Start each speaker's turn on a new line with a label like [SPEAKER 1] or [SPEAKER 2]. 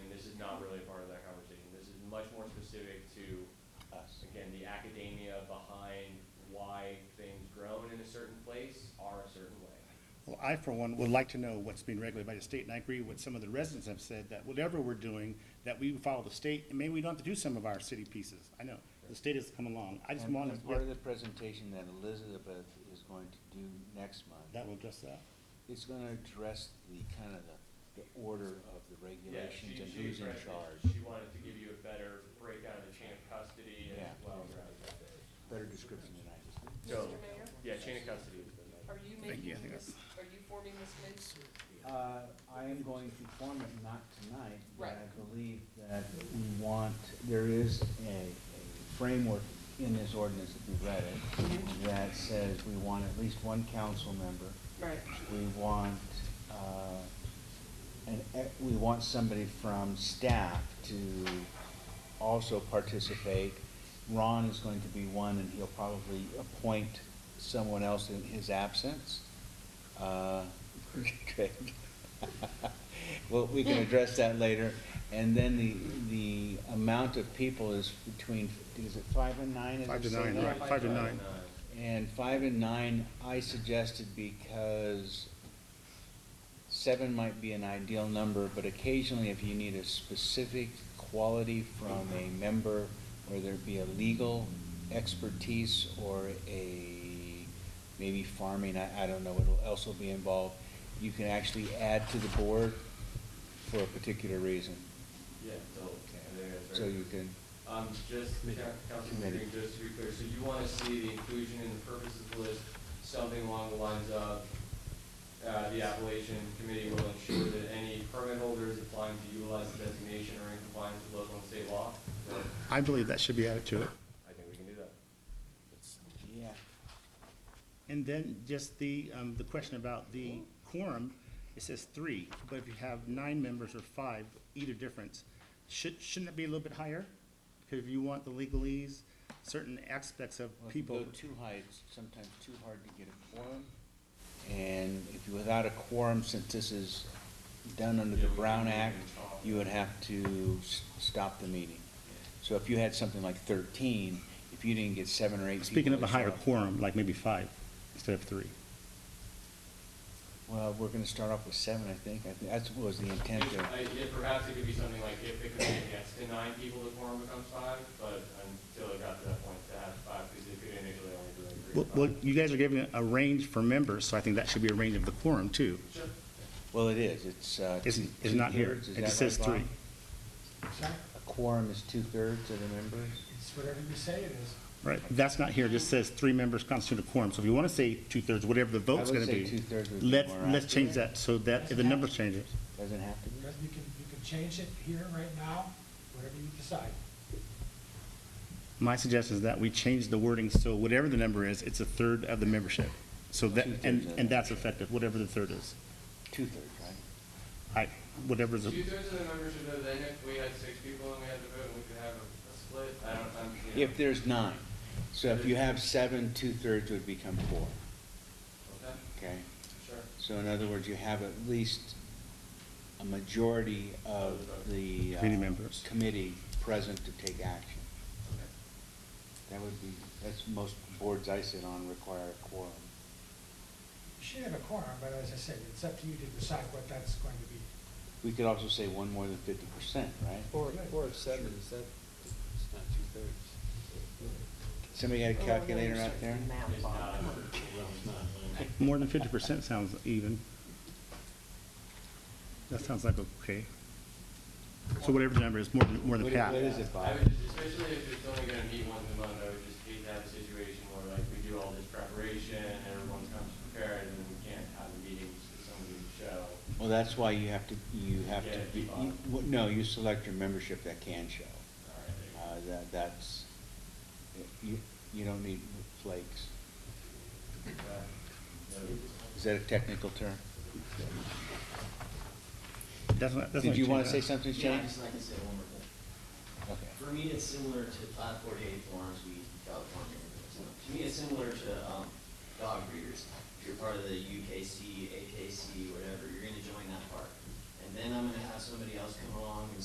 [SPEAKER 1] not really a part of that conversation. This is much more specific to,
[SPEAKER 2] us.
[SPEAKER 1] again, the academia behind why things grown in a certain place are a certain way.
[SPEAKER 3] Well, I, for one, would like to know what's being regulated by the state, and I agree with some of the residents have said that whatever we're doing, that we follow the state, and maybe we don't have to do some of our city pieces. I know, the state has come along. I just
[SPEAKER 2] And
[SPEAKER 3] want
[SPEAKER 2] and part of
[SPEAKER 3] to,
[SPEAKER 2] the presentation that Elizabeth is going to do next month,
[SPEAKER 3] that will address that.
[SPEAKER 2] is gonna address the kind of the, the order of the
[SPEAKER 1] Yeah, she,
[SPEAKER 2] regulations and
[SPEAKER 1] she
[SPEAKER 2] who's in
[SPEAKER 1] expressed that
[SPEAKER 2] charge,
[SPEAKER 1] she wanted to give you a better breakdown of the chain of custody as
[SPEAKER 2] Yeah.
[SPEAKER 1] well.
[SPEAKER 2] better description than I just did.
[SPEAKER 1] So,
[SPEAKER 4] Mr. Mayor,
[SPEAKER 1] yeah, chain of custody is the.
[SPEAKER 4] are you
[SPEAKER 3] Thank you, I
[SPEAKER 4] making
[SPEAKER 3] think
[SPEAKER 4] this, are you forming this committee?
[SPEAKER 5] Uh, I am going to form it, not tonight, but
[SPEAKER 4] Right.
[SPEAKER 5] I believe that we want, there is a- a framework in this ordinance, if you've read it, that says we want at least one council member.
[SPEAKER 4] Right.
[SPEAKER 5] We want, uh, an, e- we want somebody from staff to also participate. Ron is going to be one, and he'll probably appoint someone else in his absence. Uh, Craig. Well, we can address that later. And then the, the amount of people is between, is it five and nine? as
[SPEAKER 3] Five
[SPEAKER 5] it
[SPEAKER 3] to
[SPEAKER 5] said?
[SPEAKER 3] nine, right, five to nine.
[SPEAKER 5] And five and nine, I suggested because seven might be an ideal number, but occasionally if you need a specific quality from a member, whether it be a legal expertise or a, maybe farming, I, I don't know, what else will be involved, you can actually add to the board for a particular reason.
[SPEAKER 1] Yeah, so, I think that's
[SPEAKER 5] So
[SPEAKER 1] right.
[SPEAKER 5] you can,
[SPEAKER 1] Um, just, Coun- Councilman Green, just to be clear, so you wanna see the inclusion in the purposes list, something along the lines of, uh, the Appalachian Committee will ensure that any permit holders applying to utilize the designation are in compliance with local and state law?
[SPEAKER 3] I believe that should be added to it.
[SPEAKER 1] I think we can do that.
[SPEAKER 5] yeah,
[SPEAKER 3] And then just the, um, the question about the quorum, it says three, but if you have nine members or five, either difference, should, shouldn't it be a little bit higher? Because if you want the legalese, certain aspects of
[SPEAKER 5] Well, if you
[SPEAKER 3] people.
[SPEAKER 5] go too high, it's sometimes too hard to get a quorum. And if you, without a quorum, since this is done under
[SPEAKER 1] Yeah,
[SPEAKER 5] the
[SPEAKER 1] we can-
[SPEAKER 5] Brown
[SPEAKER 1] we
[SPEAKER 5] Act,
[SPEAKER 1] can talk.
[SPEAKER 5] you would have to s- stop the meeting. So if you had something like thirteen, if you didn't get seven or eight people.
[SPEAKER 3] Speaking of
[SPEAKER 5] to
[SPEAKER 3] a higher
[SPEAKER 5] show up-
[SPEAKER 3] quorum, like maybe five instead of three.
[SPEAKER 5] Well, we're gonna start off with seven, I think. I think that's what was the intent
[SPEAKER 1] If-
[SPEAKER 5] there.
[SPEAKER 1] I- yeah, perhaps it could be something like if the committee gets to nine people, the quorum becomes five, but until it got to that point, to have five, because it could initially only be like three
[SPEAKER 3] Well,
[SPEAKER 1] or five.
[SPEAKER 3] well, you guys are giving a range for members, so I think that should be a range of the quorum too.
[SPEAKER 1] Sure.
[SPEAKER 5] Well, it is. It's, uh.
[SPEAKER 3] It's,
[SPEAKER 5] two-
[SPEAKER 3] it's not here.
[SPEAKER 5] two-thirds. Is
[SPEAKER 3] It
[SPEAKER 5] that
[SPEAKER 3] just says
[SPEAKER 5] right, Bob?
[SPEAKER 3] three.
[SPEAKER 5] A quorum is two-thirds of the members?
[SPEAKER 6] It's whatever you say it is.
[SPEAKER 3] Right, that's not here. It just says three members constitute a quorum. So if you want to say two-thirds, whatever the vote's
[SPEAKER 5] would
[SPEAKER 3] gonna
[SPEAKER 5] say
[SPEAKER 3] be.
[SPEAKER 5] two-thirds would be
[SPEAKER 3] Let's,
[SPEAKER 5] more
[SPEAKER 3] let's
[SPEAKER 5] accurate.
[SPEAKER 3] change that so that if the numbers change it.
[SPEAKER 5] Doesn't have to be?
[SPEAKER 6] You can, you can change it here, right now, whatever you decide.
[SPEAKER 3] My suggestion is that we change the wording so whatever the number is, it's a third of the membership. So that,
[SPEAKER 5] Two-thirds
[SPEAKER 3] and,
[SPEAKER 5] of the
[SPEAKER 3] and that's effective, whatever the third is.
[SPEAKER 5] Two-thirds, right?
[SPEAKER 3] I, whatever's, a-
[SPEAKER 1] Two-thirds of the membership, though, then if we had six people and we had to vote, we could have a a split, I don't, I'm, you know.
[SPEAKER 5] If there's nine. So if you have seven, two-thirds would become four,
[SPEAKER 1] Okay,
[SPEAKER 5] okay?
[SPEAKER 1] sure.
[SPEAKER 5] So in other words, you have at least a majority of the. uh,
[SPEAKER 3] Committee members.
[SPEAKER 5] Committee present to take action.
[SPEAKER 1] Okay.
[SPEAKER 5] That would be, that's most boards I sit on require a quorum.
[SPEAKER 6] You should have a quorum, but as I said, it's up to you to decide what that's going to be.
[SPEAKER 5] We could also say one more than fifty percent, right?
[SPEAKER 7] Four, four of seven, is that, it's not two-thirds.
[SPEAKER 5] Somebody got a calculator out there?
[SPEAKER 1] It's not-
[SPEAKER 7] Well, it's not.
[SPEAKER 3] more than fifty percent sounds even. That sounds like okay. So whatever the number is, more than, more than
[SPEAKER 5] What i-
[SPEAKER 3] half.
[SPEAKER 5] What is it,
[SPEAKER 1] I
[SPEAKER 5] Bob?
[SPEAKER 1] would, just- especially if it's only gonna meet once a month, I would just hate to have a situation where like we do all this preparation, everyone comes prepared, and then we can't have a meeting because somebody would show.
[SPEAKER 5] Well, that's why you have to, you have to,
[SPEAKER 1] Yeah,
[SPEAKER 5] you-
[SPEAKER 1] Bob.
[SPEAKER 5] you- no, you select your membership that can show.
[SPEAKER 1] All right, there you go.
[SPEAKER 5] Uh, that, that's, you, you don't need flakes. Is that a technical term?
[SPEAKER 3] That's not, that's not.
[SPEAKER 5] Did you want to
[SPEAKER 3] change.
[SPEAKER 5] say something,
[SPEAKER 8] Yeah,
[SPEAKER 5] Shane?
[SPEAKER 8] I just like to say one more thing.
[SPEAKER 5] Okay.
[SPEAKER 8] For me, it's similar to five forty-eight forms we use in California. So To me, it's similar to, um, dog breeders. If you're part of the UKC, AKC, whatever, you're gonna join that part. And then I'm gonna have somebody else come along and